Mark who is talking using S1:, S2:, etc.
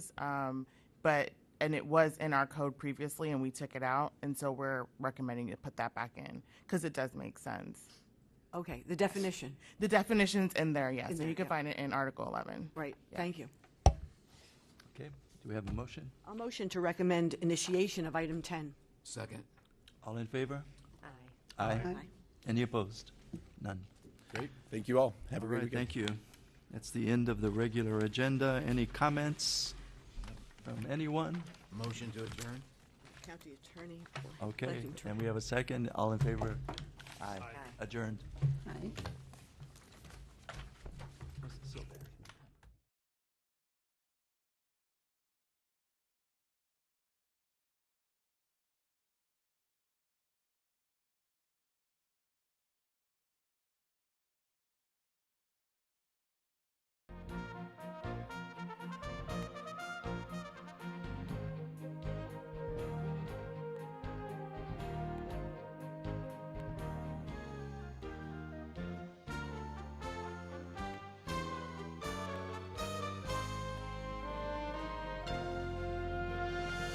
S1: Um, but and it was in our code previously, and we took it out, and so we're recommending to put that back in because it does make sense.
S2: Okay, the definition,
S1: The definitions in there, yes,
S2: In
S1: and
S2: there,
S1: you can
S2: yep.
S1: find it in Article 11.
S2: right, thank you.
S3: Okay, do we have a motion?
S2: A motion to recommend initiation of item 10.
S4: Second.
S3: All in favor?
S2: Aye.
S3: Aye. Any opposed? None.
S4: Great. Thank you all. Have a
S3: All
S4: great
S3: right,
S4: weekend.
S3: thank you. That's the end of the regular agenda. Any comments from anyone?
S4: Motion to adjourn?
S2: County attorney.
S3: Okay, and we have a second. All in favor? Aye. Adjourned.
S5: Aye.